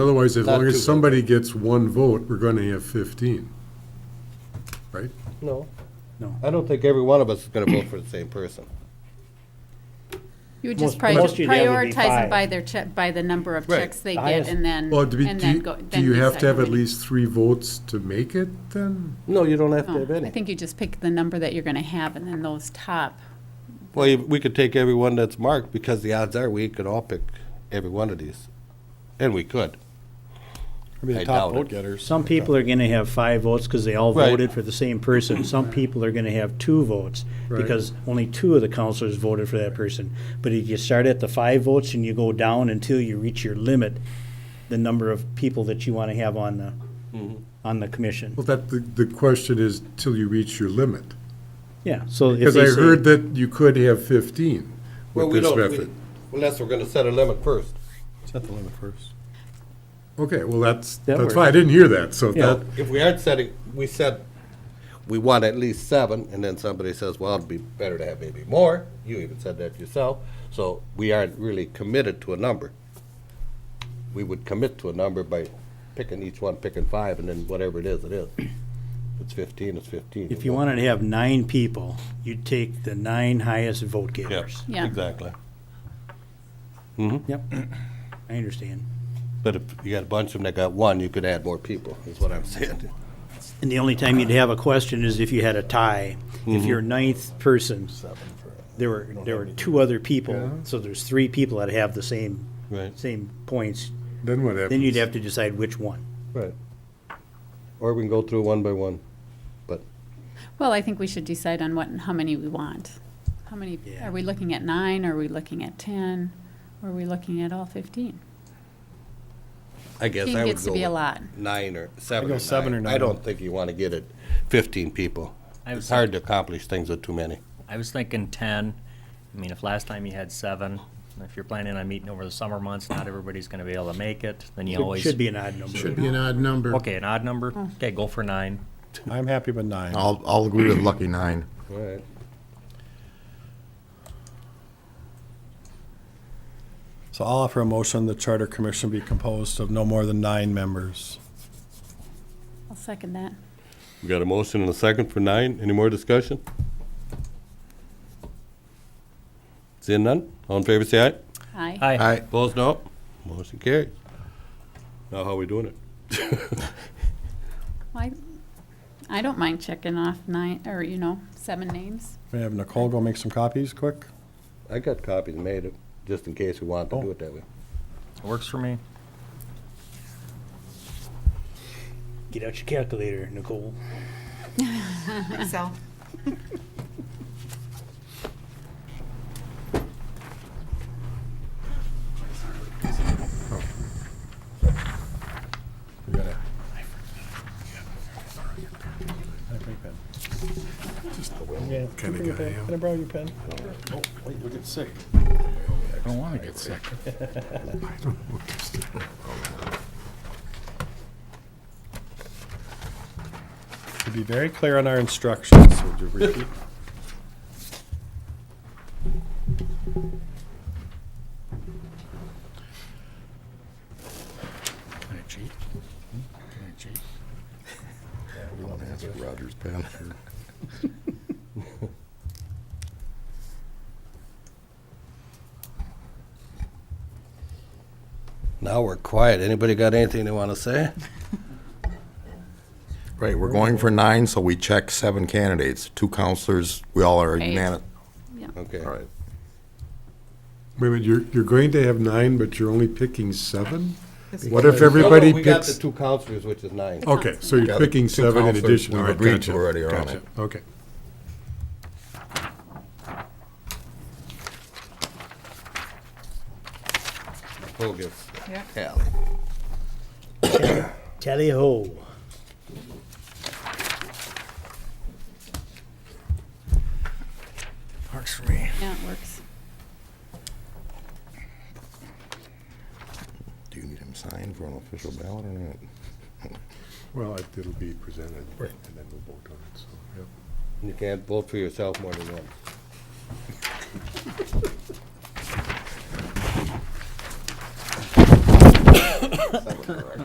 Otherwise, as Not long too as bad. somebody gets one vote, we're gonna have fifteen. Right? No. No. I don't think every one of us is gonna vote for the same person. You would just Most- pri- most you'd have would be prioritize them five. by their check, by the number of Right. checks they The get highest- and then, Well, do we, and do then you, go. do then you have to have at recycle. least three votes to make it then? No, you don't have to No, have Oh, I any. think you just pick the number that you're gonna have and then those top. Well, you- we could take every one that's marked, because the odds are we could all pick every one of these. And we could. I mean, I the top doubt it. vote getters. Some people are gonna have five votes because they all Right. voted for the same person. Some people are gonna have two votes Right. because only two of the counselors voted for that person. But if you start at the five votes and you go down until you reach your limit, the number of people that you wanna have on the, Mm-hmm. on the commission. Well, that, the, the question is till you reach your limit. Yeah, so if Because they I say- heard that you could have fifteen Well, with we this don't. method. we- Unless we're gonna set a limit first. Set the limit first. Okay, well, that's, That that's works. fine, I didn't hear that, so Yeah. that, If we aren't setting, we said, we want at least seven, and then somebody says, well, it'd be better to have maybe more. You even said that yourself. So we aren't really committed to a number. We would commit to a number by picking each one, picking five, and then whatever it is, it is. If it's fifteen, it's fifteen. If you wanted to have nine people, you'd take the nine highest vote getters. Yeah. exactly. Yep, I understand. But if you got a bunch of them that got one, you could add more people, is what I'm saying. And the only time you'd have a question is if you had a tie. If you're ninth person, there were, there were two other people, so there's three people that have the same, Right. same points. then what happens? Then you'd have to decide which one. Right. Or we can go through one by one, but Well, I think we should decide on what and how many we want. How many, Yeah. are we looking at nine? Are we looking at ten? Are we looking at all fifteen? I guess Fifteen I would go gets to be a with lot. Nine or seven. go seven or I nine. don't think you want to get it fifteen people. I It's was, hard to accomplish things with too many. I was thinking ten. I mean, if last time you had seven, and if you're planning on meeting over the summer months, not everybody's gonna be able to make it, then you It always. should be Hmm. an odd number. Should be an odd number. Okay, an odd number. Okay, go for nine. I'm happy with nine. I'll, I'll agree with Lucky Nine. All right. So I'll offer a motion the Charter Commission be composed of no more than nine members. I'll second that. We got a motion and a second for nine. Any more discussion? Seeing none? All in favor, say aye. Aye. Hi. I, Opposed, no. Motion carries. Now, how are we doing it? Well, I, I don't mind checking off nine, or, you know, seven names. May I have Nicole go make some copies quick? I got copies made, of- just in case we wanted to do Oh. it that way. Works for me. Get out your calculator, Nicole. Excel. You got it. I have my pen. Kinda guy, yeah. Can I borrow your pen? Wait, you'll get sick. I don't want to get sick. To be very clear on our instructions, would you repeat? Can I cheat? Can I cheat? We want to answer Roger's pen. Now we're quiet. Anybody got anything they want to say? Right, we're going for nine, so we check seven candidates, two counselors, we all are Eight. unanimous. Okay. All right. Wait a minute, you're, you're going to have nine, but you're only picking seven? This is- What if No, no, everybody We got the picks? Oh. two counselors, which is nine. Okay, so you're Got picking two seven in counselors addition. we've All right, agreed to gotcha, already are on gotcha. it. Okay. Who gets Yeah. tally? Tally ho. Works for me. Yeah, it works. Do you need him signed for an official ballot or not? Well, it- it'll be presented, and then we'll vote on it, so, yep. You can't vote for yourself more than once. correct.